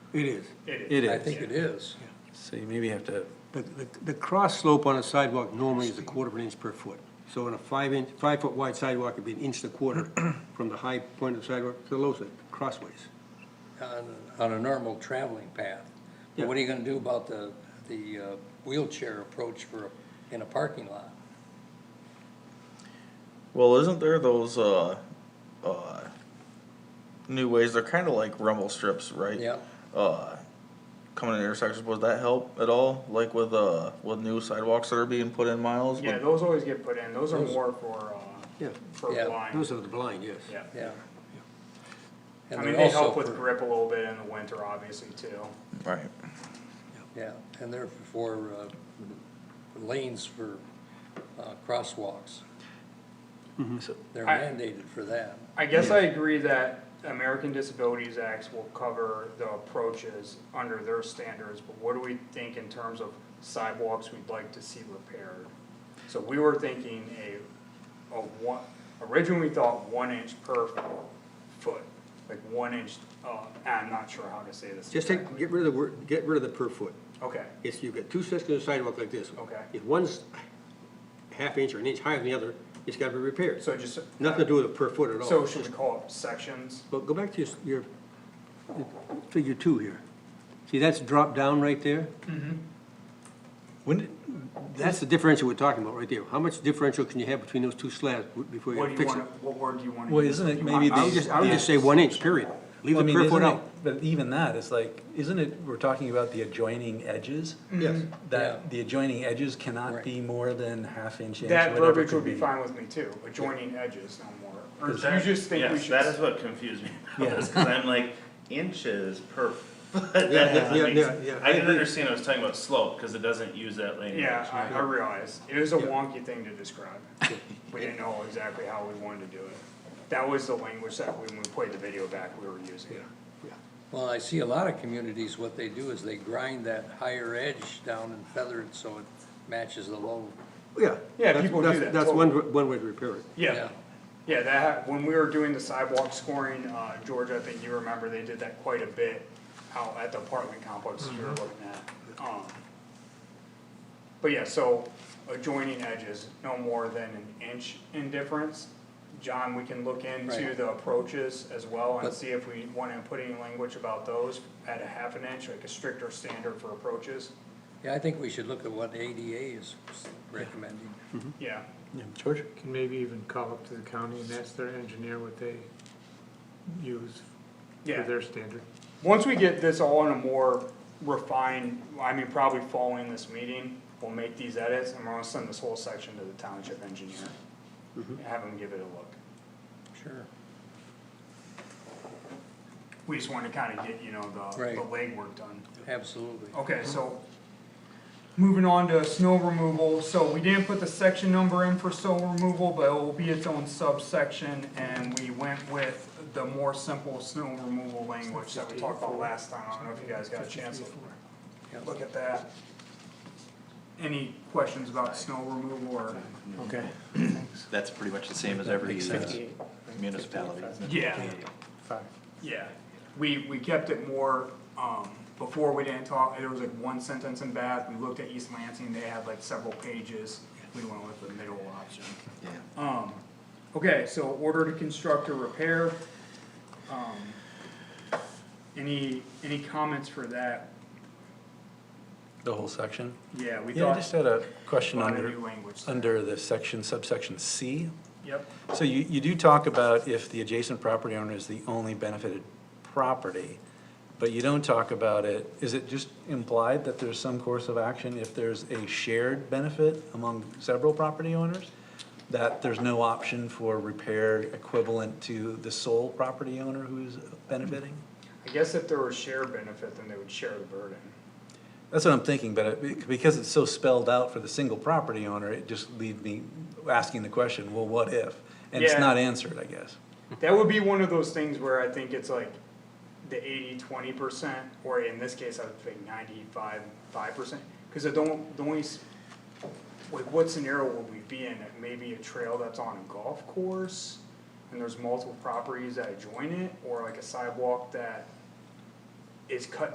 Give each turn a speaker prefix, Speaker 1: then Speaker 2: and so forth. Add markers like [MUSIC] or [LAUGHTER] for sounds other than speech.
Speaker 1: It is.
Speaker 2: It
Speaker 1: I
Speaker 2: is,
Speaker 1: think it is.
Speaker 2: so you maybe have to,
Speaker 1: The, the, the cross slope on a sidewalk normally is a quarter of an inch per foot. So on a five inch, five foot wide sidewalk, it'd be an inch and a [CLEARS THROAT] quarter from the high point of the sidewalk to the low side, crossways.
Speaker 3: on, on a normal traveling path. But what are you gonna do about the, the uh, wheelchair approach for, in a parking lot?
Speaker 4: Well, isn't there those uh, uh, new ways? They're kind of like rumble strips, right?
Speaker 3: Yeah,
Speaker 4: Uh, coming in intersections, would that help at all? Like with uh, with new sidewalks that are being put in, miles.
Speaker 5: Yeah,
Speaker 4: Would-
Speaker 5: those always get put in, those are
Speaker 3: Those-
Speaker 5: more for, uh,
Speaker 1: Yeah,
Speaker 5: for
Speaker 3: Yeah,
Speaker 5: blind,
Speaker 1: those are the blind, yes.
Speaker 5: yeah.
Speaker 3: yeah. And
Speaker 5: I
Speaker 3: they're
Speaker 5: mean, they
Speaker 3: also
Speaker 5: help with
Speaker 3: for-
Speaker 5: grip a little bit in the winter, obviously, too.
Speaker 4: Right.
Speaker 3: Yeah, and they're for, uh, lanes for, uh, crosswalks.
Speaker 2: So-
Speaker 3: They're
Speaker 5: I-
Speaker 3: mandated for that.
Speaker 5: I guess I agree that American Disabilities Acts will cover the approaches under their standards, but what do we think in terms of sidewalks we'd like to see repaired? So we were thinking a, a one, originally we thought one inch per foot, like one inch, uh, I'm not sure how to say this
Speaker 1: Just take,
Speaker 5: exactly.
Speaker 1: get rid of the word, get rid of the per foot.
Speaker 5: Okay,
Speaker 1: It's, you've got two sections of sidewalk like this.
Speaker 5: Okay.
Speaker 1: If one's a half inch or an inch higher than the other, it's gotta be repaired.
Speaker 5: so just,
Speaker 1: Nothing to do with a per foot at all.
Speaker 5: so should we call it sections?
Speaker 1: But go back to your, your, figure two here. See, that's dropped down right there?
Speaker 2: When, did-
Speaker 1: That's the differential we're talking about right there. How much differential can you have between those two slabs w- before you
Speaker 5: What
Speaker 1: gotta
Speaker 5: do you
Speaker 1: fix it?
Speaker 5: wanna, what word do you wanna?
Speaker 2: Well,
Speaker 5: use?
Speaker 2: isn't it
Speaker 5: You
Speaker 2: maybe
Speaker 5: want-
Speaker 1: I
Speaker 5: I
Speaker 1: would
Speaker 5: was
Speaker 1: just,
Speaker 5: just-
Speaker 1: I would just say one inch, period. Leave
Speaker 2: I
Speaker 1: the
Speaker 2: mean,
Speaker 1: per foot
Speaker 2: isn't it-
Speaker 1: out.
Speaker 2: But even that, it's like, isn't it, we're talking about the adjoining edges?
Speaker 5: Mm-hmm.
Speaker 1: Yes.
Speaker 3: Yeah.
Speaker 2: That the adjoining edges cannot
Speaker 3: Right.
Speaker 2: be more than half inch, inch,
Speaker 5: That
Speaker 2: whatever
Speaker 5: verbiage
Speaker 2: could
Speaker 5: would be fine with me too, adjoining edges no more, or
Speaker 2: Is
Speaker 5: do you just think we
Speaker 6: yes, that is
Speaker 5: should,
Speaker 6: what confused me.
Speaker 2: Yeah.
Speaker 6: Because I'm like, inches per [LAUGHS] foot. that
Speaker 1: Yeah,
Speaker 6: doesn't
Speaker 1: yeah,
Speaker 6: make
Speaker 1: yeah,
Speaker 6: sense.
Speaker 1: yeah, I
Speaker 6: I didn't
Speaker 1: agree.
Speaker 6: understand I was talking about slope because it doesn't use that language.
Speaker 5: yeah, I, I realize, it was a
Speaker 1: Yeah.
Speaker 5: wonky thing to describe. We didn't know exactly how we wanted to do it, that was the language that when we played the video back, we were using.
Speaker 3: Well, I see a lot of communities, what they do is they grind that higher edge down and feather it so it matches the low.
Speaker 1: Yeah.
Speaker 5: Yeah,
Speaker 1: That's-
Speaker 5: people do
Speaker 1: that's-
Speaker 5: that,
Speaker 1: That's one, one way to repair it.
Speaker 5: Yeah, yeah, that, ha- when we were doing the sidewalk scoring, uh, George, I think you remember, they did that quite a bit out at the apartment complex you were
Speaker 3: Mm-hmm.
Speaker 5: looking at, um. But yeah, so adjoining edges, no more than an inch in difference. John, we can look into
Speaker 3: Right.
Speaker 5: the approaches as well and
Speaker 3: But-
Speaker 5: see if we wanna put any language about those at a half an inch, like a stricter standard for approaches,
Speaker 3: Yeah, I think we should look at what ADA is recommending.
Speaker 5: yeah.
Speaker 2: Yeah, George?
Speaker 7: Can maybe even call up to the county and ask their engineer what they use
Speaker 5: Yeah.
Speaker 7: for their standard.
Speaker 5: Once we get this all in a more refined, I mean, probably following this meeting, we'll make these edits and we're gonna send this whole section to the township engineer. Have him give it a look.
Speaker 3: Mm-hmm. Sure.
Speaker 5: We just wanna kinda get, you know, the,
Speaker 3: Right.
Speaker 5: the legwork done.
Speaker 3: Absolutely.
Speaker 5: Okay, so moving on to snow removal, so we didn't put the section number in for snow removal, but it will be its own subsection. And we went with the more simple snow removal language that we talked about last time, I don't know if you guys got a chance to look at that. Any questions about snow removal or?
Speaker 7: Okay.
Speaker 8: That's pretty much the same as every uh, municipality.
Speaker 5: Yeah.
Speaker 7: Five.
Speaker 5: Yeah, we, we kept it more, um, before we didn't talk, it was like one sentence in Bath, we looked at East Lansing, they had like several pages. We went with the middle option.
Speaker 8: Yeah.
Speaker 5: Um, okay, so order to construct or repair. Um, any, any comments for that?
Speaker 2: The whole section?
Speaker 5: Yeah, we
Speaker 2: Yeah, I just
Speaker 5: thought,
Speaker 2: had a question
Speaker 5: on a
Speaker 2: under,
Speaker 5: new language.
Speaker 2: under the section subsection C.
Speaker 5: Yep,
Speaker 2: So you, you do talk about if the adjacent property owner is the only benefited property, but you don't talk about it, is it just implied that there's some course of action if there's a shared benefit among several property owners? That there's no option for repair equivalent to the sole property owner who's benefiting?
Speaker 5: I guess if there was shared benefit, then they would share the burden.
Speaker 2: That's what I'm thinking, but it- because it's so spelled out for the single property owner, it just leaves me asking the question, well, what if? And it's
Speaker 5: Yeah.
Speaker 2: not answered, I guess.
Speaker 5: That would be one of those things where I think it's like the 80, 20 percent, or in this case, I would think ninety-five, five percent. Cause I don't, the only, s- like, what scenario would we be in? Maybe a trail that's on a golf course, and there's multiple properties that join it, or like a sidewalk that is cut